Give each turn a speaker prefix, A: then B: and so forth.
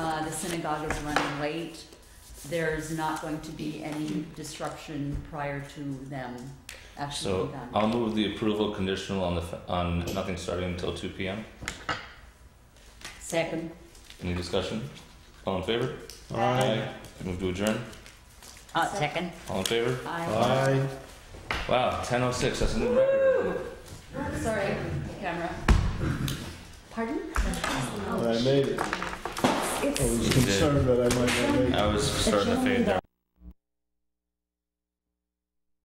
A: Uh, synagogue is running late, there's not going to be any disruption prior to them actually
B: So
A: being done.
B: I'll move the approval conditional on the, f- on nothing starting until two P M.
A: Second,
B: Any discussion? All in favor?
C: Aye.
B: Move to adjourn?
D: Uh, second.
B: All in favor?
A: I,
C: Aye.
B: Wow, ten oh six, that's a new record.
A: sorry, camera. Pardon?
C: I made it. I was concerned that I might not make it.
B: I was starting to fade there.